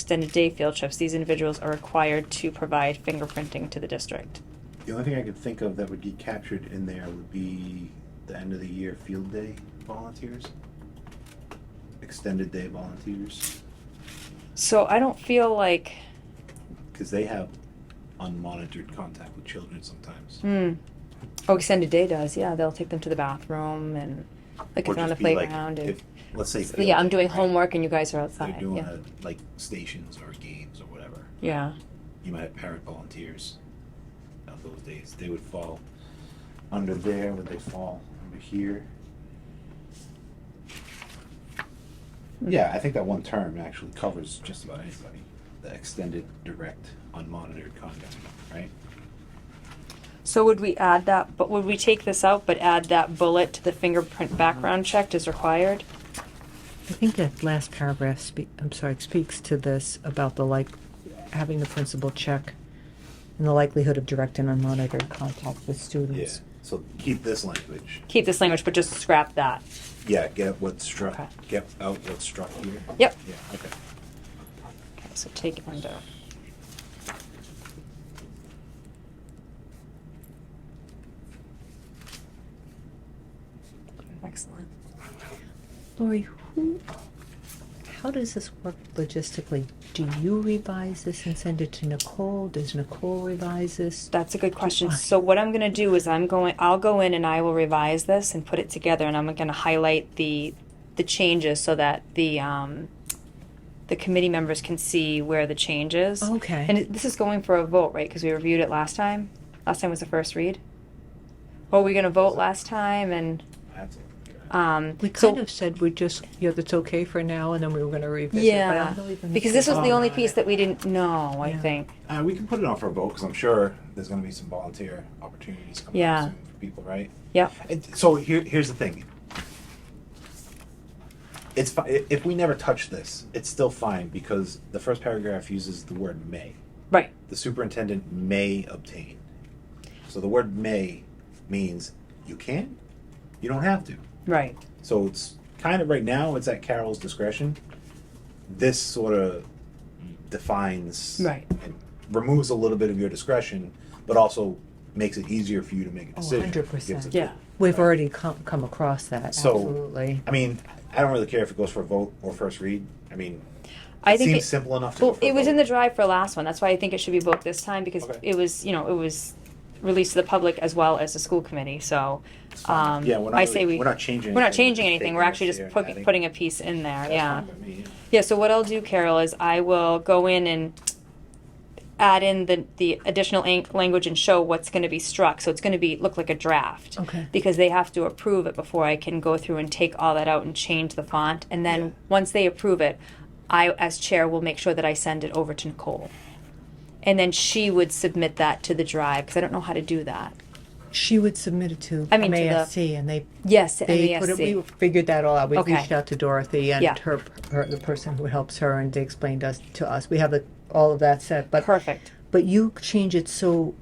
extended day field trips, these individuals are required to provide fingerprinting to the district. The only thing I could think of that would get captured in there would be the end of the year field day volunteers. Extended day volunteers, So I don't feel like, because they have unmonitored contact with children sometimes. hmm. Oh, extended day does. Yeah, they'll take them to the bathroom and like Or if they're on the just be like, playground. and, if- Let's say. So, field yeah, I'm day, doing right? homework and you guys are outside. They're doing yeah. a, like stations or games or whatever. yeah. You might have parent volunteers. Now those days, they would fall under there, would they fall under here? Hmm. Yeah, I think that one term actually covers just about anybody. The extended, direct, unmonitored conduct, right? So would we add that, but would we take this out, but add that bullet to the fingerprint background checked as required? I think that last paragraph spe- I'm sorry, speaks to this about the like, having the principal check and the likelihood of direct and unmonitored contact with students. So keep this language. Keep this language, but just scrap that. Yeah, get what struck, Okay. get out what struck here. Yep. Yeah, okay. Okay, so take it under. Excellent. Lori, who, how does this work logistically? Do you revise this and send it to Nicole? Does Nicole revise this? That's a good question. So what I'm gonna do is I'm going, I'll go in and I will revise this and put it together and I'm gonna highlight the, the changes so that the, um, the committee members can see where the change is. Okay. And it- this is going for a vote, right? Because we reviewed it last time. Last time was the first read. Well, we're gonna vote last time and, That's it. um. We so- kind of said we just, yeah, that's okay for now, and then we were gonna revisit. but I Yeah, don't even because this was the recall only that. piece that we didn't know, I Yeah. think. Uh, we can put it on for a vote because I'm sure there's going to be some volunteer opportunities coming Yeah. up soon for people, right? Yep. And so here, here's the thing. It's fi- if we never touch this, it's still fine because the first paragraph uses the word may. Right. The superintendent may obtain. So the word may means you can, you don't have to. Right. So it's kind of right now it's at Carol's discretion. This sort of defines Right. and removes a little bit of your discretion, but also makes it easier for you to make a Oh, decision. 100%. Gives it- Yeah. We've already come, come across that, So- absolutely. I mean, I don't really care if it goes for a vote or first read. I mean, I it think seems it, simple enough to. well, go for a it was vote. in the drive for last one. That's why I think it should be both this time because Okay. it was, you know, it was released to the public as well as the school committee. So, um, Yeah, we're not I say really- we we're not changing. we're not anything, changing anything. We're actually taking just this here, putting adding- putting a piece in there. That's Yeah. fine by me, yeah. Yeah, so what I'll do, Carol, is I will go in and add in the, the additional ang- language and show what's going to be struck. So it's going to be look like a draft. Okay. Because they have to approve it before I can go through and take all that out and change the font. And then Yeah. once they approve it, I, as chair, will make sure that I send it over to Nicole. And then she would submit that to the drive because I don't know how to do that. She would submit it to I mean, to the- MASC, and they Yes, to They put MASC. it, we figured that all out. We Okay. reached out to Dorothy and Yeah. her, her, the person who helps her, and they explained us to us. We have the, all of that set, but Perfect. but you change it so.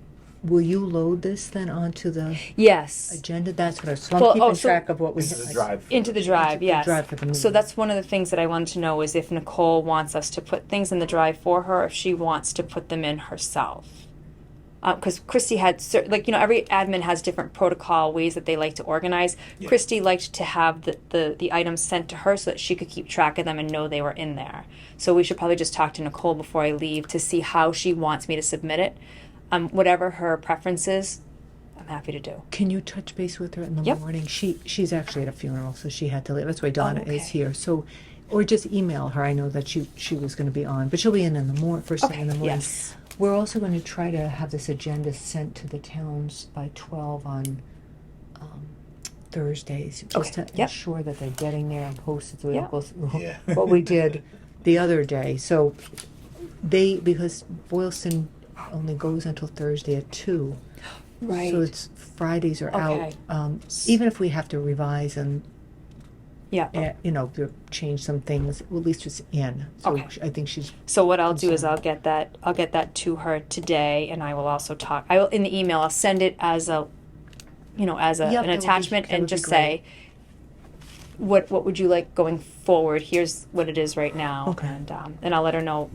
Will you load this then onto the Yes. agenda? That's what I. So I'm Well, keeping oh, so- track of what we. This is a drive. for Into the vote. drive, Into the yes. drive for the So meeting. that's one of the things that I wanted to know is if Nicole wants us to put things in the drive for her, if she wants to put them in herself. Because Christy had, cer- like, you know, every admin has different protocol ways that they like to organize. Yeah. Christy liked to have the, the, the items sent to her so that she could keep track of them and know they were in there. So we should probably just talk to Nicole before I leave to see how she wants me to submit it. Um, whatever her preference is, I'm happy to do. Can you touch base with her in the Yep. Oh, morning? She she's actually at a funeral, so she had to leave. That's why Donna okay. is here. So, or just email her. I know that she she was going to be on, but she'll be in in the morning, first thing in the Okay, morning. yes. We're also going to try to have this agenda sent to the towns by twelve on um, Thursdays, just Okay, to yep. ensure that they're getting there and posted so we Yep. don't go through Yeah. what we did the other day. So they because Boylston only goes until Thursday at two. So it's Fridays are Okay. out. Um, even if we have to revise and, yeah. eh, you know, to change some things, well, at least it's in. So Okay. sh- I think she's, So what I'll do is I'll get that I'll get that to her today, and I will also talk. I will in the email I'll send it as a, you know, as a, Yep, an that would be- attachment, that and would be just say, what what would you like going forward? Here's what it is right now, Okay. and um, and I'll let her know